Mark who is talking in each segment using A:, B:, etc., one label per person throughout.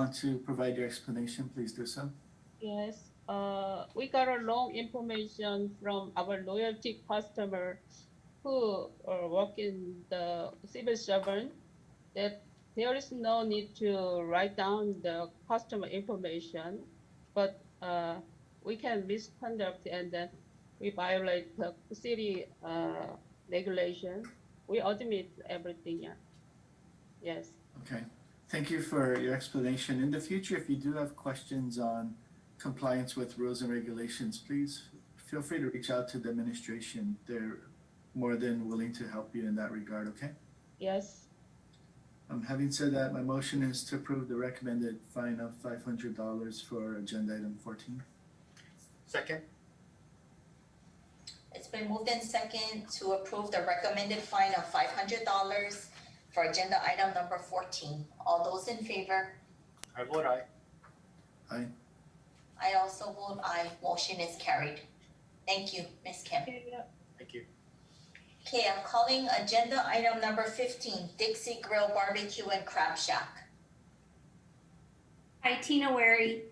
A: want to provide your explanation, please do so.
B: Yes, uh, we got a long information from our loyalty customer who uh, work in the civil servant that there is no need to write down the customer information, but uh, we can misconduct and then we violate the city uh, regulation. We admit everything, yeah. Yes.
A: Okay, thank you for your explanation. In the future, if you do have questions on compliance with rules and regulations, please feel free to reach out to the administration. They're more than willing to help you in that regard, okay?
B: Yes.
A: Um, having said that, my motion is to approve the recommended fine of five hundred dollars for agenda item fourteen.
C: Second?
D: It's been moved in second to approve the recommended fine of five hundred dollars for agenda item number fourteen. All those in favor?
C: I vote aye.
D: I also vote aye. Motion is carried. Thank you, Ms. Kim.
C: Thank you.
D: Okay, I'm calling agenda item number fifteen, Dixie Grill Barbecue and Crab Shack.
E: Hi, Tina Wary.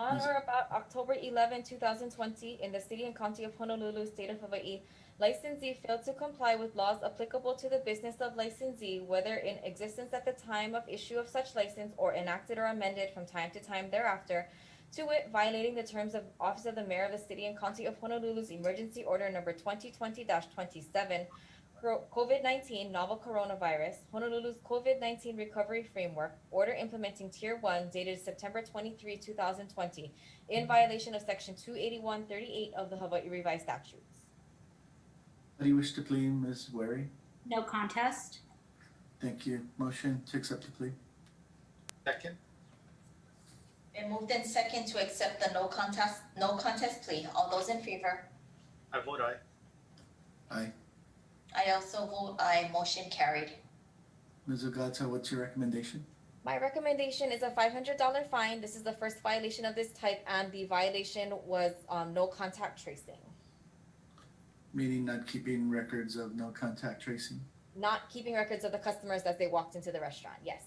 F: On
A: Yes.
F: or about October 11, 2020, in the city and county of Honolulu, state of Hawaii, licensee failed to comply with laws applicable to the business of licensee, whether in existence at the time of issue of such license or enacted or amended from time to time thereafter, to wit, violating the terms of Office of the Mayor of the City and County of Honolulu's Emergency Order Number 2020-27, Cor- COVID-19 novel coronavirus, Honolulu's COVID-19 recovery framework, order implementing tier 1 dated September 23, 2020, in violation of section 28138 of the Hawaii revised statutes.
A: How do you wish to plead, Ms. Wary?
E: No contest.
A: Thank you. Motion to accept the plea.
C: Second?
D: Been moved in second to accept the no contest, no contest plea. All those in favor?
C: I vote aye.
D: I also vote aye. Motion carried.
A: Ms. Ogata, what's your recommendation?
F: My recommendation is a $500 fine. This is the first violation of this type, and the violation was um, no contact tracing,
A: Meaning not keeping records of no contact tracing?
F: not keeping records of the customers as they walked into the restaurant. Yes.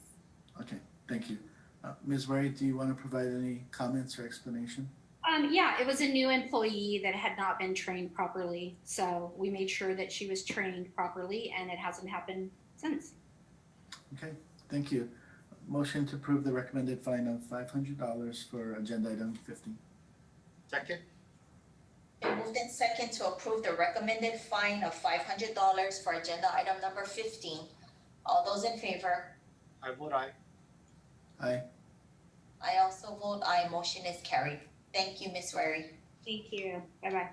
A: Okay, thank you. Uh, Ms. Wright, do you want to provide any comments or explanation?
E: Um, yeah, it was a new employee that had not been trained properly. So we made sure that she was trained properly and it hasn't happened since.
A: Okay, thank you. Motion to approve the recommended fine of five hundred dollars for agenda item fifteen.
C: Second?
D: Been moved in second to approve the recommended fine of five hundred dollars for agenda item number fifteen. All those in favor?
C: I vote aye.
A: Aye.
D: I also vote aye, motion is carried. Thank you, Ms. Wary.
E: Thank you. Bye bye.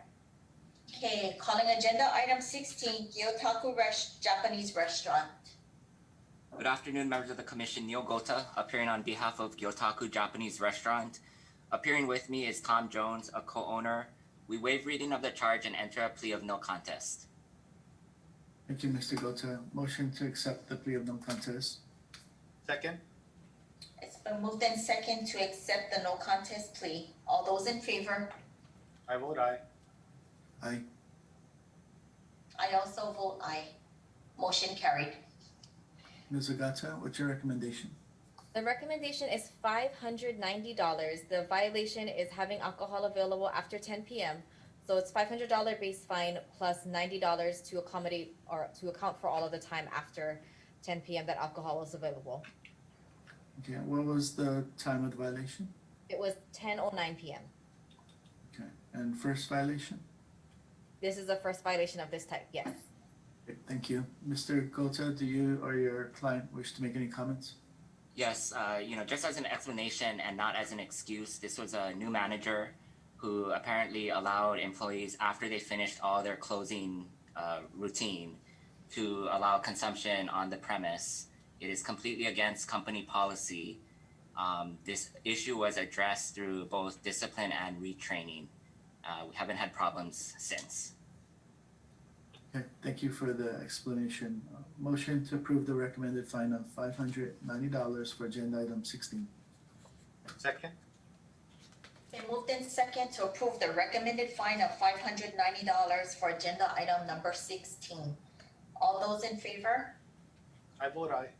D: Okay, calling agenda item sixteen, Gyotaku Res- Japanese Restaurant.
G: Good afternoon, members of the commission. Neil Gota, appearing on behalf of Gyotaku Japanese Restaurant. Appearing with me is Tom Jones, a co-owner. We waive reading of the charge and enter a plea of no contest.
A: Thank you, Mr. Gota. Motion to accept the plea of no contest.
C: Second?
D: It's been moved in second to accept the no contest plea. All those in favor?
C: I vote aye.
A: Aye.
D: I also vote aye, motion carried.
A: Ms. Ogata, what's your recommendation?
F: The recommendation is five hundred ninety dollars. The violation is having alcohol available after ten PM. So it's five hundred dollar base fine plus ninety dollars to accommodate or to account for all of the time after ten PM that alcohol was available.
A: Okay, what was the time of the violation
F: It was ten oh nine PM.
A: and first violation?
F: This is the first violation of this type, yes.
A: Okay, Thank you. Mr. Gota, do you or your client wish to make any comments?
G: Yes, uh, you know, just as an explanation and not as an excuse, this was a new manager who apparently allowed employees after they finished all their closing uh, routine to allow consumption on the premise. It is completely against company policy. Um, this issue was addressed through both discipline and retraining. Uh, we haven't had problems since.
A: Okay, thank you for the explanation. Uh, Motion to approve the recommended fine of five hundred ninety dollars for agenda item sixteen.
C: Second?
D: Been moved in second to approve the recommended fine of five hundred ninety dollars for agenda item number sixteen. All those in favor?
C: I vote aye.